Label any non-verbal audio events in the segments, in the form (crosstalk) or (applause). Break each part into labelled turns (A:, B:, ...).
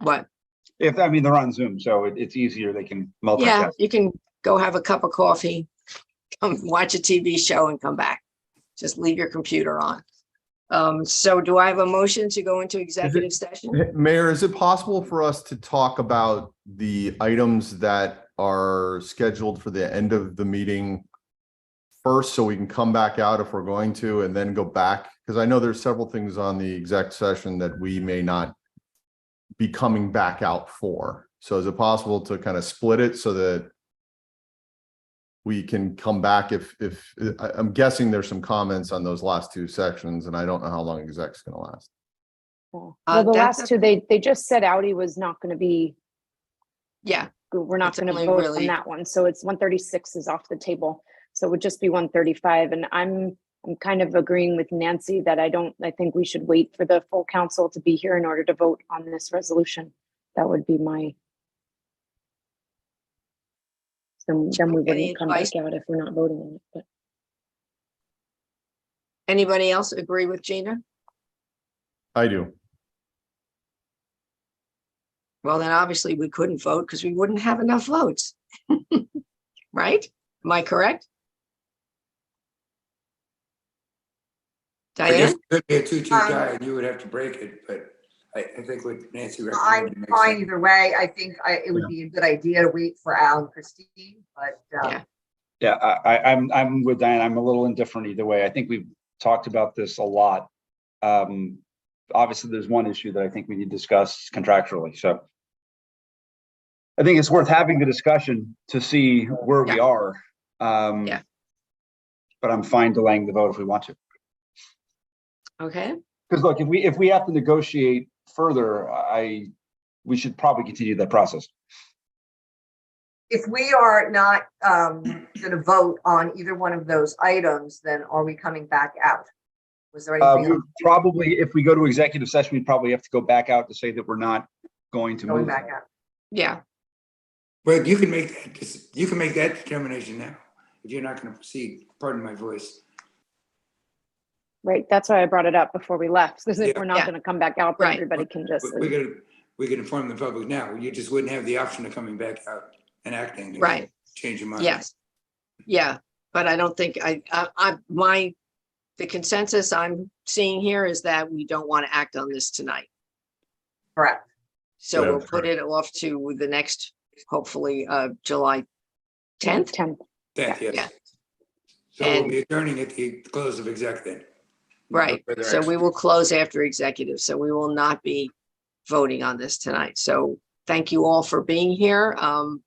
A: What?
B: If, I mean, they're on Zoom, so it, it's easier. They can
A: Yeah,
B: multitask.
A: you can go have a cup of coffee, come watch a TV show and come back. Just leave your computer on. Um, so do I have a motion to go into executive session?
C: Mayor, is it possible for us to talk about the items that are scheduled for the end of the meeting first, so we can come back out if we're going to, and then go back? Because I know there's several things on the exec session that we may not be coming back out for. So is it possible to kind of split it so that we can come back if, if, I- I'm guessing there's some comments on those last two sections, and I don't know how long exec's gonna last.
D: Well,
A: Uh,
D: the
A: that's
D: last two, they, they just said Audi was not going to be,
A: Yeah,
D: we're not
A: It's
D: going to
A: only
D: vote
A: really-
D: on that one. So it's one thirty-six is off the table. So it would just be one thirty-five. And I'm, I'm kind of agreeing with Nancy that I don't, I think we should wait for the full council to be here in order to vote on this resolution. That would be my. Then, then we
A: Any
D: wouldn't come back
A: advice?
D: out if we're not voting on it, but.
A: anybody else agree with Gina?
C: I do.
A: Well, then obviously we couldn't vote because we wouldn't have enough votes. (laughs) Right? Am I correct?
E: I guess
A: Diane?
E: it could be a two-two
F: Um,
E: tie, and you would have to break it, but I, I think what Nancy
F: I'm
E: recommended makes
F: fine
E: sense.
F: either way. I think I, it would be a good idea to wait for Al and Christine, but,
A: Yeah.
F: um,
B: Yeah, I, I, I'm, I'm with Diane. I'm a little indifferent either way. I think we've talked about this a lot. Um, obviously, there's one issue that I think we need to discuss contractually, so. I think it's worth having the discussion to see where we
A: Yeah.
B: are. Um,
A: Yeah.
B: But I'm fine delaying the vote if we want to.
A: Okay,
B: Because look, if we, if we have to negotiate further, I, we should probably continue that process.
F: if we are not, um, gonna vote on either one of those items, then are we coming back out? Was there
B: Uh,
F: anything
B: we
F: else
B: probably, if we go to executive session, we'd probably have to go back out to say that we're not going to
F: going
B: move.
F: back out?
A: yeah,
E: But you can make, that dec- you can make that determination now, if you're not gonna proceed, pardon my voice.
D: Right, that's why I brought it up before we left, because if
E: Yeah.
D: we're
A: Yeah.
D: not going to come back out,
A: Right.
D: then everybody can just.
E: We- We're gonna, we can inform the public now, you just wouldn't have the option of coming back out and acting. if you
A: Right.
E: Change your mind.
A: yes. Yeah, but I don't think I, I, I, my, the consensus I'm seeing here is that we don't want to act on this tonight.
F: Correct.
A: So
C: Yeah,
A: we'll put it off to the next, hopefully, uh, July tenth.
D: Tenth,
E: That,
A: yeah.
E: yes. So we'll
A: And-
E: be adjourning at the close of exec then.
A: Right,
E: further
A: so we
E: action.
A: will close after executive, so we will not be voting on this tonight. So thank you all for being here. Um,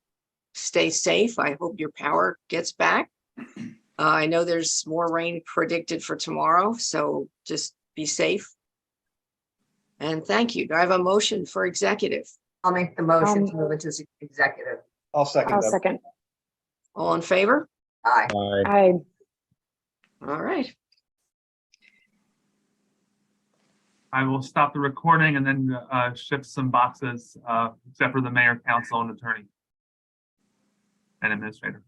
A: stay safe. I hope your power gets back. Uh, I know there's more rain predicted for tomorrow, so just be safe. And thank you. Do I have a motion for executive?
F: I'll make the motion to
D: Um,
F: move into s- executive.
B: I'll second
D: I'll
B: that.
D: second.
A: All in favor?
F: Aye.
D: I,
A: All right,
G: I will stop the recording and then uh, shift some boxes, uh, except for the mayor, council, and attorney. And administrator.